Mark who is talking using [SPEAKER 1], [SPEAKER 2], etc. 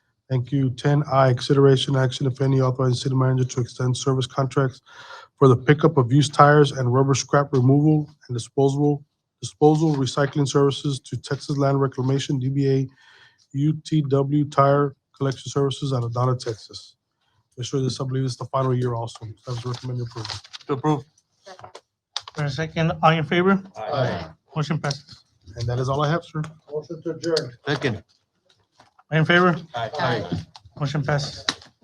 [SPEAKER 1] Thank you. Ten I, consideration action, if any, authorizing city manager to extend service contracts for the pickup of used tires and rubber scrap removal and disposable, disposal recycling services to Texas Land Reclamation, DBA UTW Tire Collection Services out of Donna, Texas. Commissioner, this, I believe, is the final year also. Staff recommend approval.
[SPEAKER 2] To approve.
[SPEAKER 3] Second.
[SPEAKER 2] For a second, all in favor?
[SPEAKER 1] Aye.
[SPEAKER 2] Motion passes.
[SPEAKER 1] And that is all I have, sir.
[SPEAKER 4] Motion to adjourn.
[SPEAKER 5] Second.
[SPEAKER 2] All in favor?
[SPEAKER 5] Aye.
[SPEAKER 3] Aye.
[SPEAKER 2] Motion passes.